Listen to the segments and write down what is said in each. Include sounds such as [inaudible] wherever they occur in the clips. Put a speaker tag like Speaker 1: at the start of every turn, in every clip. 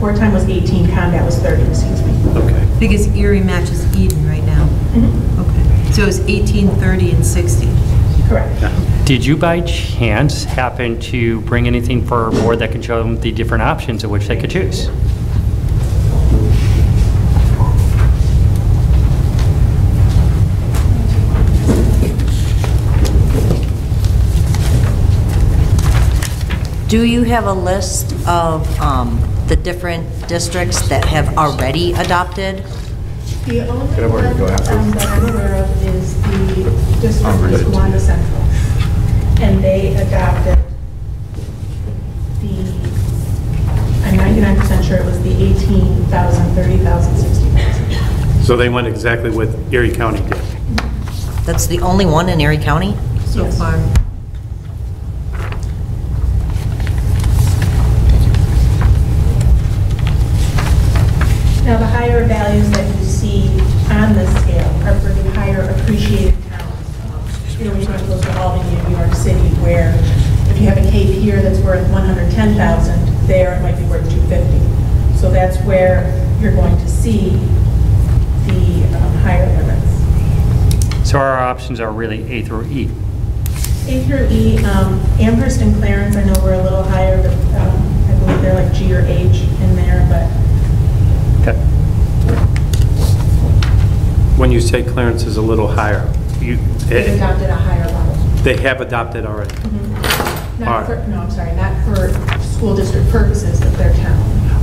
Speaker 1: wartime was 18, combat was 30, excuse me.
Speaker 2: Okay.
Speaker 3: Because Erie matches Eden right now.
Speaker 1: Mhm,
Speaker 3: Okay. So it was 18, 30, and 60.
Speaker 1: Correct.
Speaker 2: Did you by chance happen to bring anything for our board that could show them the different options of which they could choose?
Speaker 4: Do you have a list of um, the different districts that have already adopted?
Speaker 1: The only
Speaker 5: I borrow your
Speaker 1: one
Speaker 5: glasses?
Speaker 1: um, that I'm aware of is the district is
Speaker 5: Unrelated.
Speaker 1: Wanda Central. And they adopted the, I'm 99% sure it was the 18,000, 30,000, 60,000.
Speaker 6: So they went exactly what Erie County did.
Speaker 4: That's the only one in Erie County?
Speaker 3: So
Speaker 1: Yes.
Speaker 3: far.
Speaker 1: Now, the higher values that you see on this scale are for the higher appreciated towns. You know, when you go to Albany and New York City, where if you have a cave here that's worth 110,000, there it might be worth 250. So that's where you're going to see the um, higher limits.
Speaker 2: So our options are really A through E.
Speaker 1: A through E, um, Amherst and Clarence, I know we're a little higher, but um, I believe they're like G or H in there, but
Speaker 2: Okay.
Speaker 6: When you say Clarence is a little higher, you,
Speaker 1: they've
Speaker 6: eh,
Speaker 1: adopted a higher level.
Speaker 6: they have adopted already.
Speaker 1: Not for,
Speaker 6: Alright.
Speaker 1: no, I'm sorry, not for school district purposes, but their town.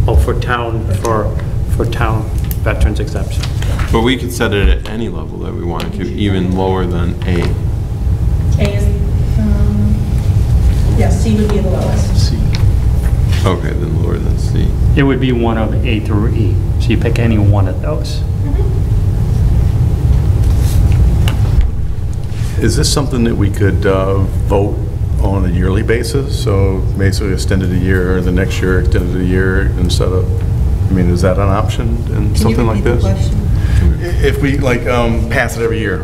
Speaker 6: Oh, for town, for, for town veterans exemption.
Speaker 5: But we could set it at any level that we wanted to, even lower than A.
Speaker 1: A is, um, yeah, C would be the lowest.
Speaker 6: C.
Speaker 5: Okay, then lower than C.
Speaker 2: It would be one of A through E. So you pick any one of those.
Speaker 7: Mm-hmm. Is this something that we could uh, vote on a yearly basis? So basically extended a year, or the next year extended a year instead of, I mean, is that an option in something like this? I- If we, like, um, pass it every year?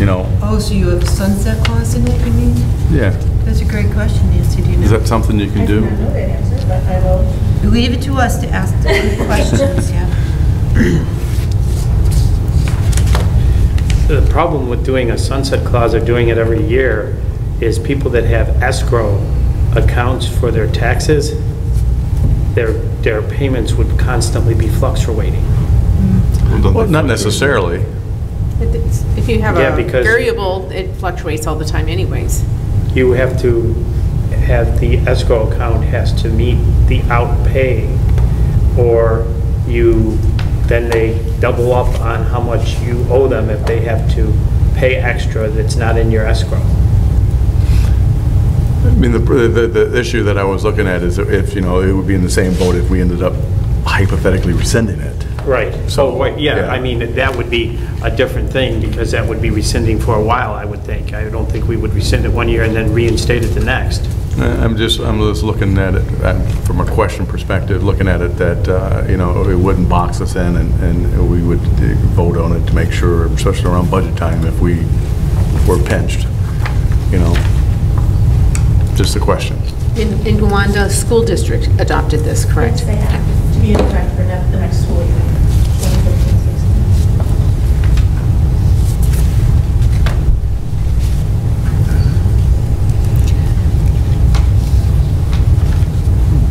Speaker 7: You know,
Speaker 3: Oh, so you have sunset clause in it, you mean?
Speaker 7: yeah,
Speaker 3: That's a great question, Nancy, do you know?
Speaker 7: is that something you can do?
Speaker 1: I do not know that answer, but I will.
Speaker 3: Leave it to us to ask the good questions, yeah.
Speaker 6: The problem with doing a sunset clause or doing it every year is people that have escrow accounts for their taxes, their, their payments would constantly be fluctuating.
Speaker 7: Well, Not necessarily.
Speaker 8: If it's- If you have
Speaker 6: Yeah,
Speaker 8: a
Speaker 6: because-
Speaker 8: variable, it fluctuates all the time anyways.
Speaker 6: You have to have, the escrow account has to meet the outpay, or you, then they double up on how much you owe them if they have to pay extra that's not in your escrow.
Speaker 7: I mean, the, the, the issue that I was looking at is if, you know, it would be in the same boat if we ended up hypothetically rescinding it.
Speaker 6: Right.
Speaker 7: So,
Speaker 6: So, wait, yeah,
Speaker 7: yeah.
Speaker 6: I mean, that would be a different thing, because that would be rescinding for a while, I would think. I don't think we would rescind it one year and then reinstate it the next.
Speaker 7: Uh, I'm just, I'm just looking at it, uh, from a question perspective, looking at it that, uh, you know, it wouldn't box us in and, and we would uh, vote on it to make sure, especially around budget time, if we were pinched, you know? Just a question.
Speaker 8: In in Gowanda, school district adopted this, correct?
Speaker 1: Yes, They have to be in effect for ne- the next school year, 2015-16.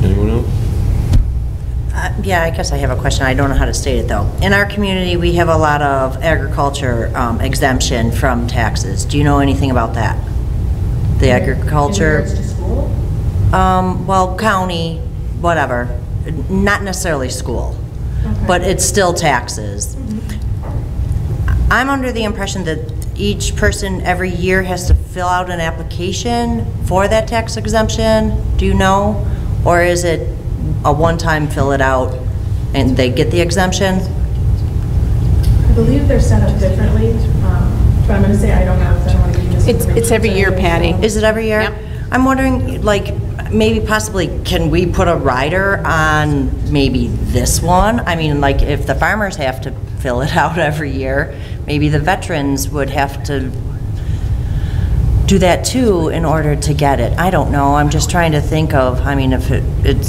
Speaker 5: Anyone else?
Speaker 4: Uh, Yeah, I guess I have a question. I don't know how to state it, though. In our community, we have a lot of agriculture um, exemption from taxes. Do you know anything about that? The
Speaker 1: In
Speaker 4: agriculture?
Speaker 1: regards to school,
Speaker 4: Um, well, county, whatever, not necessarily school,
Speaker 1: Okay.
Speaker 4: but it's still taxes. I'm under the impression that each person every year has to fill out an application for that tax exemption, do you know? Or is it a one-time fill it out and they get the exemption?
Speaker 1: I believe they're set up differently, um, but I'm going to say I don't know, because I don't want to give
Speaker 8: It's-
Speaker 1: misinformation.
Speaker 8: it's every year, Patty.
Speaker 4: Is it every year?
Speaker 8: Yep.
Speaker 4: I'm wondering, like, maybe possibly, can we put a rider on maybe this one? I mean, like, if the farmers have to [laughs] fill it out every year, maybe the veterans would have to do that too in order to get it. I don't know, I'm just trying to think of, I mean, if it- it's